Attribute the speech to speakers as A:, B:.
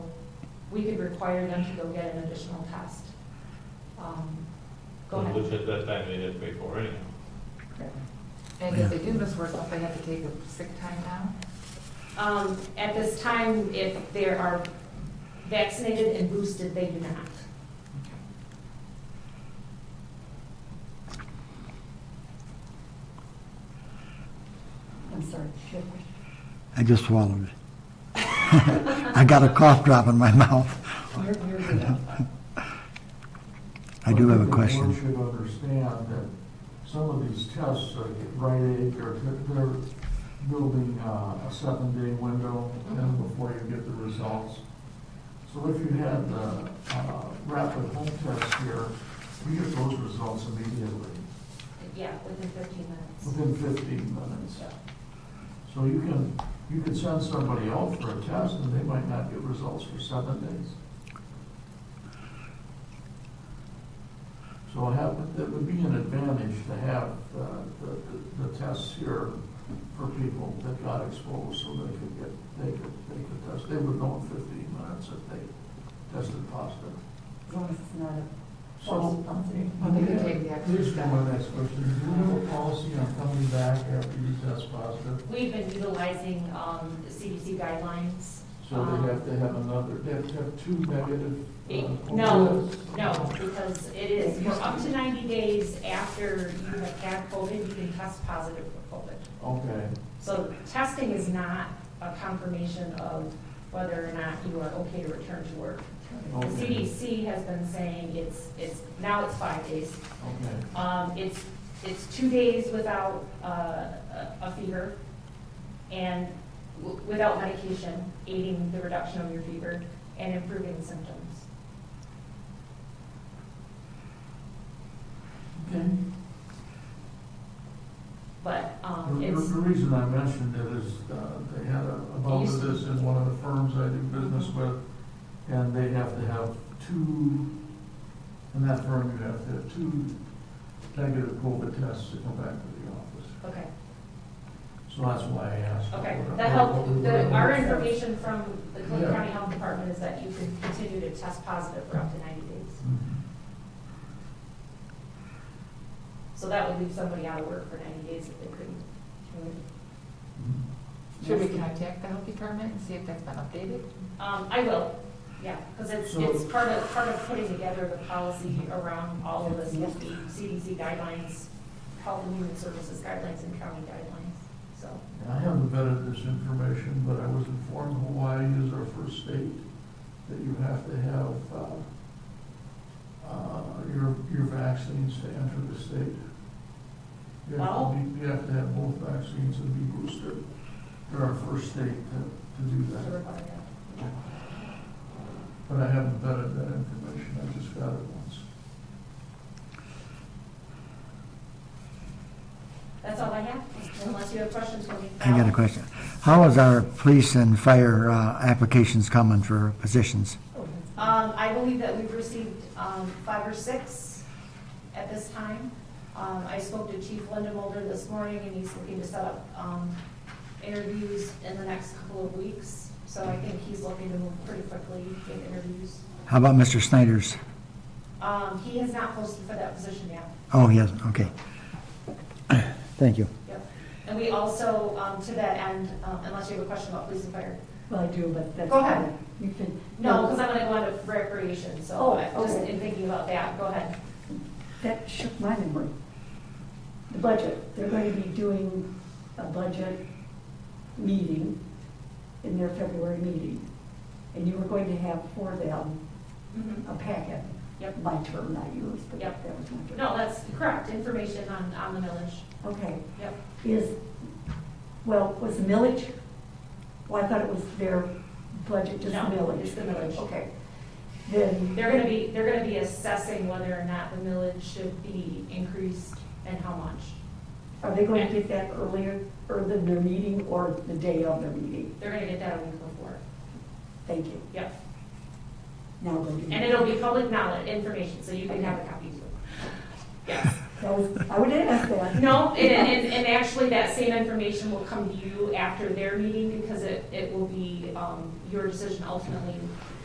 A: we could require them to go get an additional test. Um, Go ahead.
B: Which at that time they didn't pay for anyhow.
C: And if they do miss work, don't they have to take a sick time now?
A: Um, At this time, if they are vaccinated and boosted, they do not.
D: I'm sorry. your question.
E: I just swallowed it. I got a cough drop in my mouth.
D: You're- you're good.
E: I do have a
F: think The
E: question.
F: board should understand that some of these tests, like at Rite Aid, they're, they're building uh, a seven-day window in before you get the results. So if you had the uh, rapid home test here, you get those results immediately,
A: Yeah, within 15 minutes.
F: within fifteen minutes. So you can, you could send somebody out for a test and they might not get results for seven days. So have, it would be an advantage to have uh, the, the, the tests here for people that got exposed so they could get, they could, they could test. They would know in fifteen minutes if they tested positive.
D: As long as it's not a
F: So,
D: forced something.
C: But they could take the extra
F: Here's
C: step.
F: my next question. Do we have a policy on coming back after you test positive?
A: We've been utilizing um, CDC guidelines.
F: So
A: Um,
F: they have to have another, they have to have two negative. uh,
A: No,
F: tests.
A: no, because it is, for up to 90 days after you have had COVID, you can test positive for COVID.
F: Okay,
A: So testing is not a confirmation of whether or not you are okay to return to work. The
F: okay,
A: CDC has been saying it's, it's, now it's five days.
F: okay.
A: Um, It's, it's two days without uh, a a fever and w- without medication aiding the reduction of your fever and improving symptoms.
F: Okay.
A: But
F: The,
A: um,
F: the-
A: it's.
F: the reason I mentioned it is, uh, they had a, a bout of this in one of the firms I do business with, and they have to have two, in that firm, you have to have two negative COVID tests to come back to the office.
A: Okay,
F: So that's why I asked.
A: okay.
F: what-
A: That helped,
F: what-
A: the,
F: what-
A: our information from the Clinton
F: Yeah.
A: County Health Department is that you can continue to test positive for up to ninety days.
F: Mm-hmm.
A: So that would leave somebody out of work for ninety days if they couldn't.
C: Should we contact the health department and see if that's been updated?
A: Um, I will, yeah, because it's,
F: So-
A: it's part of, part of putting together the policy around all of this, with the CDC guidelines, Health and Human Services guidelines and county guidelines, so.
F: I haven't vetted this information, but I was informed Hawaii is our first state that you have to have, uh, uh, your, your vaccines to enter the state. You have
A: Wow.
F: to be, you have to have both vaccines and be boosted. They're our first state to, to do
A: to
F: that,
A: require that.
F: but I haven't vetted that information, I just got it once.
A: That's all I have, unless you have questions for me.
E: I got a question. How is our police and fire uh, applications coming for positions?
A: Um, I believe that we've received, um, five or six at this time. Um, I spoke to Chief Lindemulder this morning and he's looking to set up, um, interviews in the next couple of weeks. So I think he's looking to move pretty quickly in interviews.
E: How about Mr. Snyder's?
A: Um, he has not posted for that position yet.
E: Oh, he hasn't, okay. Thank you.
A: Yep. And we also, um, to that end, um, unless you have a question about police and fire.
D: Well, I do, but that's.
A: Go ahead.
D: You can.
A: No, because I'm gonna go into recreation, so
D: Oh,
A: I- just
D: okay.
A: in thinking about that, go ahead.
D: That shook my memory. The budget, they're going to be doing a budget meeting in their February meeting. And you were going to have for them a packet.
A: Yep.
D: My term, not yours, but
A: Yep.
D: that was my term.
A: No, that's correct, information on, on the millage.
D: Okay,
A: Yep.
D: is, well, was the millage? Well, I thought it was their budget, just
A: No,
D: millage.
A: it's the millage.
D: Okay. Then.
A: They're gonna be, they're gonna be assessing whether or not the millage should be increased and how much.
D: Are they going to get that earlier, or than their meeting, or the day of their meeting?
A: They're gonna get that a week before.
D: Thank you.
A: Yep.
D: Now go do
A: And it'll be public knowledge, information, so you can have a copy too. Yes.
D: That was- I would ask that.
A: No, and, and, and actually that same information will come to you after their meeting because it, it will be, um, your decision ultimately